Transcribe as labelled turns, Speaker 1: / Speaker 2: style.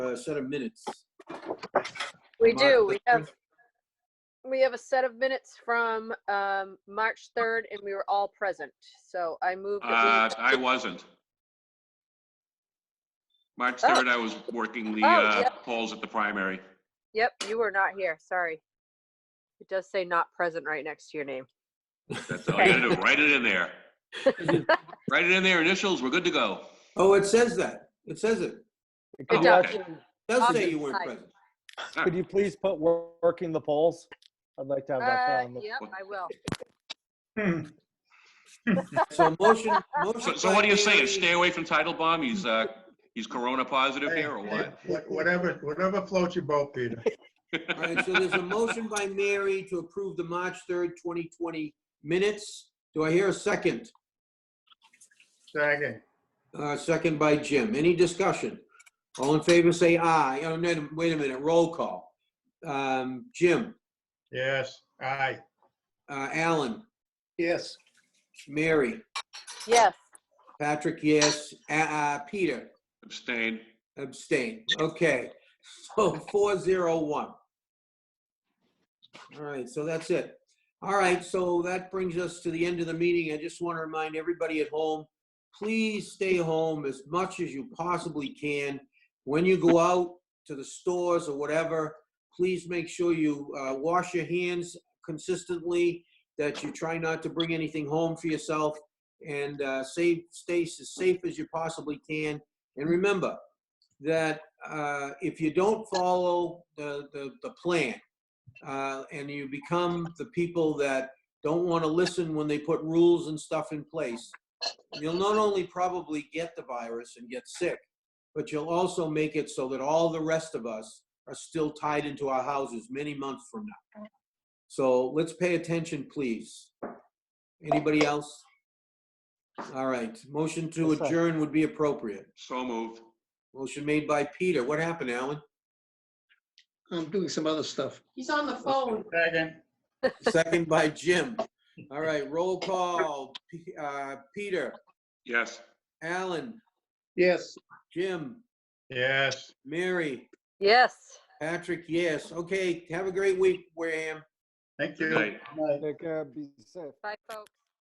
Speaker 1: a set of minutes.
Speaker 2: We
Speaker 1: Mark,
Speaker 2: do. We
Speaker 1: the-
Speaker 2: have, we have a set of minutes from um, March 3rd and we were all present. So I moved.
Speaker 3: Uh, I wasn't. March
Speaker 2: Oh.
Speaker 3: 3rd, I was working the
Speaker 2: Oh,
Speaker 3: uh,
Speaker 2: yeah.
Speaker 3: polls at the primary.
Speaker 2: Yep, you were not here. Sorry. It does say not present right next to your name.
Speaker 3: That's all you gotta do, write it in there. Write it in there, initials, we're good to go.
Speaker 1: Oh, it says that. It says it.
Speaker 2: Good
Speaker 4: Could you
Speaker 2: job.
Speaker 4: actually-
Speaker 1: It Does say
Speaker 2: Okay.
Speaker 1: you weren't present.
Speaker 4: could you please put wor- working the polls? I'd like to have that
Speaker 2: Uh,
Speaker 4: found.
Speaker 2: Yep, I will.
Speaker 1: So motion,
Speaker 3: So
Speaker 1: motion.
Speaker 3: so what do you
Speaker 1: by
Speaker 3: say?
Speaker 1: Haley-
Speaker 3: Stay away from Title Bomb? He's, uh, he's corona positive here or what?
Speaker 5: Wha- Whatever, whatever floats your boat, Peter.
Speaker 1: All right, so there's a motion by Mary to approve the March 3rd, 2020 minutes. Do I hear a second?
Speaker 5: Second.
Speaker 1: Uh, Second by Jim. Any discussion? All in favor, say aye. Oh, no, wait a minute, roll call. Um, Jim,
Speaker 5: Yes, aye.
Speaker 1: uh, Alan,
Speaker 5: Yes.
Speaker 1: Mary,
Speaker 2: Yes,
Speaker 1: Patrick, yes, Uh, uh, Peter
Speaker 3: Abstain.
Speaker 1: abstain. Okay, so 401. All right, so that's it. All right, so that brings us to the end of the meeting. I just want to remind everybody at home, please stay home as much as you possibly can. When you go out to the stores or whatever, please make sure you uh, wash your hands consistently, that you try not to bring anything home for yourself, and uh, save, stay as safe as you possibly can. And remember that uh, if you don't follow the, the, the plan, uh, and you become the people that don't want to listen when they put rules and stuff in place, you'll not only probably get the virus and get sick, but you'll also make it so that all the rest of us are still tied into our houses many months from now. So let's pay attention, please. Anybody else? All right, motion to
Speaker 4: Yes, sir.
Speaker 1: adjourn would be appropriate.
Speaker 3: So moved.
Speaker 1: Motion made by Peter. What happened, Alan?
Speaker 5: I'm doing some other stuff.
Speaker 6: He's on the phone.
Speaker 5: Second.
Speaker 1: Second by Jim. All right, roll call. P- uh, Peter,
Speaker 3: Yes.
Speaker 1: Alan,
Speaker 5: Yes.
Speaker 1: Jim,
Speaker 5: Yes.
Speaker 1: Mary,
Speaker 2: yes.
Speaker 1: Patrick, yes. Okay, have a great week, Wareham.
Speaker 5: Thank
Speaker 3: Good night.
Speaker 5: Night.
Speaker 4: Take care, be safe.
Speaker 2: Bye, folks.